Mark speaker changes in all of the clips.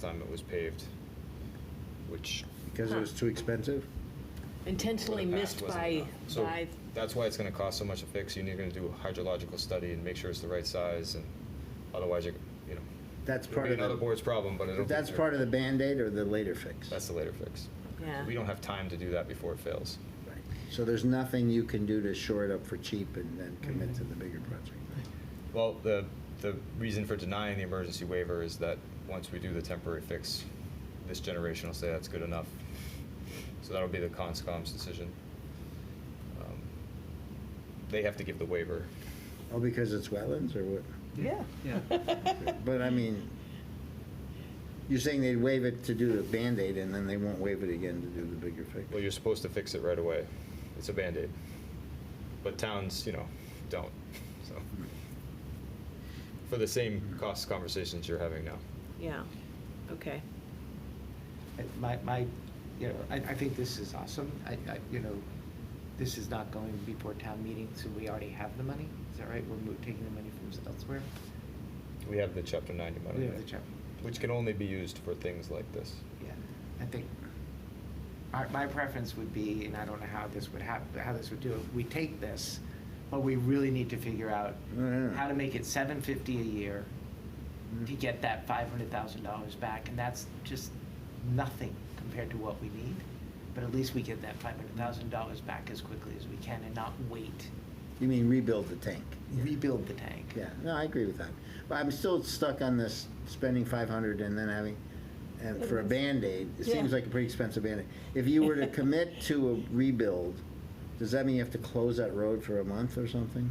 Speaker 1: time it was paved, which.
Speaker 2: Because it was too expensive?
Speaker 3: Intentionally
Speaker 1: for the
Speaker 3: missed
Speaker 1: past wasn't
Speaker 3: by,
Speaker 1: enough. So
Speaker 3: by,
Speaker 1: That's why it's gonna cost so much to fix. You're gonna do a hydrological study and make sure it's the right size and otherwise you're, you know.
Speaker 2: That's
Speaker 1: It'll
Speaker 2: part
Speaker 1: be
Speaker 2: of
Speaker 1: another
Speaker 2: the,
Speaker 1: board's problem, but I don't.
Speaker 2: but
Speaker 1: think
Speaker 2: that's
Speaker 1: they're-
Speaker 2: part of the Band-Aid or the later fix?
Speaker 1: That's the later fix.
Speaker 3: yeah.
Speaker 1: We don't have time to do that before it fails.
Speaker 2: Right. So there's nothing you can do to shore it up for cheap and then commit to the bigger project?
Speaker 1: Well, the, the reason for denying the emergency waiver is that once we do the temporary fix, this generation will say that's good enough. So that'll be the CONSCOM's decision. Um, They have to give the waiver.
Speaker 2: Oh, because it's wetlands or what?
Speaker 3: Yeah.
Speaker 2: But I mean, you're saying they'd waive it to do the Band-Aid and then they won't waive it again to do the bigger fix?
Speaker 1: Well, you're supposed to fix it right away. It's a Band-Aid. But towns, you know, don't, so. For the same cost conversations you're having now.
Speaker 3: Yeah, okay.
Speaker 4: My, my, you know, I, I think this is awesome. I, I, you know, this is not going before town meeting, so we already have the money. Is that right? We're mo- taking the money from elsewhere?
Speaker 1: We have the chapter ninety money.
Speaker 4: We have the chapter.
Speaker 1: Which can only be used for things like this.
Speaker 4: Yeah, I think, my, my preference would be, and I don't know how this would hap, how this would do it, we take this, but we really need to figure out
Speaker 2: Yeah.
Speaker 4: how to make it seven fifty a year to
Speaker 2: Mm.
Speaker 4: get that five hundred thousand dollars back, and that's just nothing compared to what we need. But at least we get that five hundred thousand dollars back as quickly as we can and not wait,
Speaker 2: You mean rebuild the tank?
Speaker 4: rebuild the tank.
Speaker 2: Yeah, no, I agree with that. But I'm still stuck on this spending five hundred and then having, and for a Band-Aid, it seems
Speaker 3: Yeah.
Speaker 2: like a pretty expensive Band-Aid. If you were to commit to a rebuild, does that mean you have to close that road for a month or something?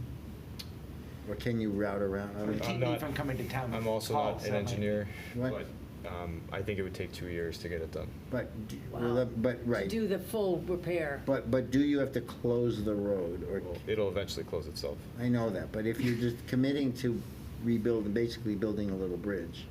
Speaker 2: Or can you route around? I
Speaker 4: Or
Speaker 2: don't know.
Speaker 4: keep me
Speaker 1: not-
Speaker 4: from coming to town.
Speaker 1: I'm
Speaker 4: with
Speaker 1: also not
Speaker 4: calls,
Speaker 1: an
Speaker 4: that might be-
Speaker 1: engineer,
Speaker 2: What?
Speaker 1: but um, I think it would take two years to get it done.
Speaker 2: But, do-
Speaker 3: Wow.
Speaker 2: well, that- but,
Speaker 3: To
Speaker 2: right,
Speaker 3: do the full repair.
Speaker 2: but, but do you have to close the road or,
Speaker 1: Well, It'll eventually close itself.
Speaker 2: I know that, but if you're just committing to rebuild, basically building a little bridge,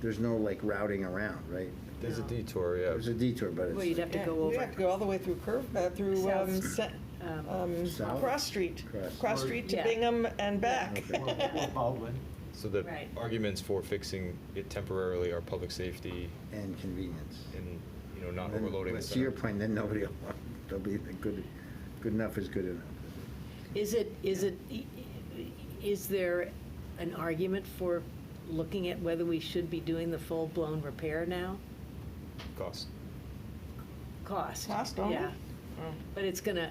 Speaker 2: there's no like routing around, right?
Speaker 1: There's a
Speaker 3: No.
Speaker 1: detour, yeah.
Speaker 2: There's a detour, but it's.
Speaker 3: Well, you'd have to
Speaker 5: Yeah,
Speaker 3: go
Speaker 5: You
Speaker 3: over.
Speaker 5: have to go all the way through Curve, uh, through,
Speaker 3: South.
Speaker 5: um, Se-
Speaker 3: Um,
Speaker 5: um,
Speaker 2: South?
Speaker 5: Cross Street.
Speaker 2: Cross.
Speaker 5: Cross Street to
Speaker 3: Yeah.
Speaker 5: Bingham and back.
Speaker 2: Okay.
Speaker 4: Or- or Baldwin.
Speaker 1: So the
Speaker 3: Right.
Speaker 1: arguments for fixing it temporarily are public safety
Speaker 2: and convenience.
Speaker 1: and, you know, not
Speaker 2: Then-
Speaker 1: overloading the
Speaker 2: but
Speaker 1: center.
Speaker 2: To your point, then nobody will, want- they'll be, the good, good enough is good enough.
Speaker 3: Is it, is it, is there an argument for looking at whether we should be doing the full-blown repair now?
Speaker 1: Cost.
Speaker 3: Cost?
Speaker 5: Cost only?
Speaker 3: Yeah. But it's gonna,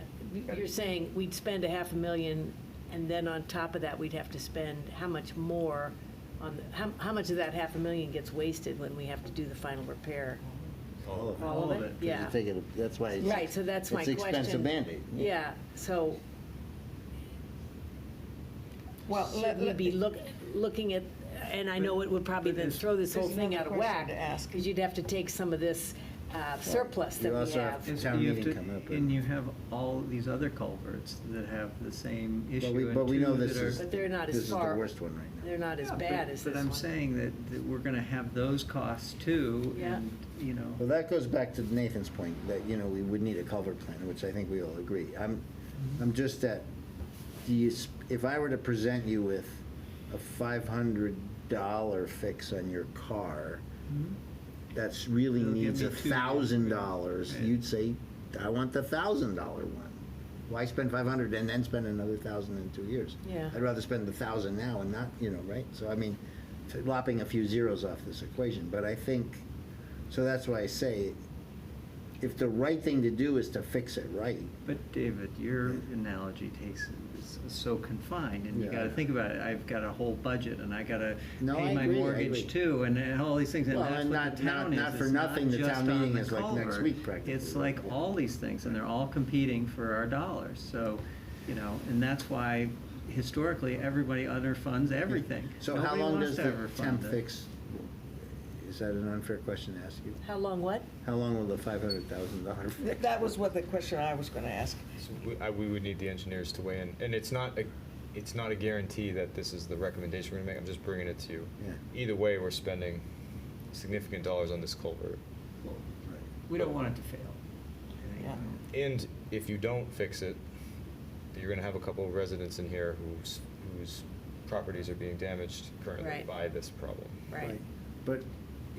Speaker 3: you're saying we'd spend a half a million, and then on top of that, we'd have to spend how much more on, the- how, how much of that half a million gets wasted when we have to do the final repair?
Speaker 1: All of
Speaker 3: it. All of
Speaker 2: 'Cause
Speaker 3: it? Yeah.
Speaker 2: you take it- That's why it's.
Speaker 3: Right, so that's my question.
Speaker 2: It's expensive Band-Aid.
Speaker 3: Yeah, so
Speaker 5: Well, let-
Speaker 3: should we
Speaker 5: let-
Speaker 3: be look, looking at, and I know it would probably then throw this whole
Speaker 5: There's
Speaker 3: thing out
Speaker 5: another
Speaker 3: of
Speaker 5: question
Speaker 3: whack.
Speaker 5: to ask.
Speaker 3: Because you'd have to take some of this uh, surplus that
Speaker 2: You
Speaker 3: we
Speaker 2: also have
Speaker 3: have.
Speaker 2: to-
Speaker 6: And
Speaker 2: Town
Speaker 6: you have
Speaker 2: meeting
Speaker 6: to-
Speaker 2: coming up,
Speaker 6: And
Speaker 2: uh,
Speaker 6: you have all these other culverts that have the same issue.
Speaker 2: we-
Speaker 6: and
Speaker 2: but we
Speaker 6: two
Speaker 2: know
Speaker 6: that
Speaker 2: this
Speaker 6: are-
Speaker 2: is-
Speaker 3: But they're not
Speaker 2: This
Speaker 3: as
Speaker 2: is the
Speaker 3: far.
Speaker 2: worst one right now.
Speaker 3: They're not as
Speaker 6: Yeah,
Speaker 3: bad
Speaker 6: but-
Speaker 3: as this one.
Speaker 6: But I'm saying that, that we're gonna have those costs too,
Speaker 3: Yeah.
Speaker 6: and, you
Speaker 2: Well,
Speaker 6: know,
Speaker 2: that goes back to Nathan's point, that, you know, we would need a culvert plan, which I think we all agree. I'm, I'm just that, do you, s- if I were to present you with a five hundred dollar fix on your car, that's really
Speaker 6: It'll give
Speaker 2: needs
Speaker 6: me
Speaker 2: a
Speaker 6: two.
Speaker 2: thousand dollars,
Speaker 6: Yeah.
Speaker 2: you'd say, I want the thousand dollar one. Why spend five hundred and then spend another thousand in two years?
Speaker 3: Yeah.
Speaker 2: I'd rather spend the thousand now and not, you know, right? So I mean, t- lopping a few zeros off this equation, but I think, so that's why I say, if the right thing to do is to fix it right,
Speaker 6: but David, your analogy takes, is so confined, and you
Speaker 2: Yeah.
Speaker 6: gotta think about it, I've got a whole budget, and I gotta
Speaker 2: No, I
Speaker 6: pay my
Speaker 2: agree, I
Speaker 6: mortgage
Speaker 2: agree.
Speaker 6: too, and and all these things, and
Speaker 2: Well,
Speaker 6: that's
Speaker 2: and
Speaker 6: what
Speaker 2: not-
Speaker 6: the
Speaker 2: not-
Speaker 6: town is.
Speaker 2: not for
Speaker 6: It's
Speaker 2: nothing, the
Speaker 6: just
Speaker 2: town
Speaker 6: on
Speaker 2: meeting
Speaker 6: the
Speaker 2: is like next
Speaker 6: culvert.
Speaker 2: week practically.
Speaker 6: It's like all these things, and they're all competing for our dollars, so, you know, and that's why historically, everybody underfunds everything.
Speaker 2: So how
Speaker 6: Nobody
Speaker 2: long
Speaker 6: wants
Speaker 2: does
Speaker 6: to
Speaker 2: the
Speaker 6: overfund
Speaker 2: temp
Speaker 6: it.
Speaker 2: fix, is that an unfair question to ask you?
Speaker 3: How long what?
Speaker 2: How long will the five hundred thousand dollar fix?
Speaker 5: Th- That was what the question I was gonna ask.
Speaker 1: So we, I, we would need the engineers to weigh in, and it's not a, it's not a guarantee that this is the recommendation we're gonna make, I'm just bringing it to you.
Speaker 2: Yeah.
Speaker 1: Either way, we're spending significant dollars on this culvert.
Speaker 2: Right.
Speaker 6: We don't want it to fail.
Speaker 5: Yeah.
Speaker 1: And if you don't fix it, you're gonna have a couple of residents in here whose, whose properties are being damaged currently
Speaker 3: Right.
Speaker 1: by this problem.
Speaker 3: Right.
Speaker 2: But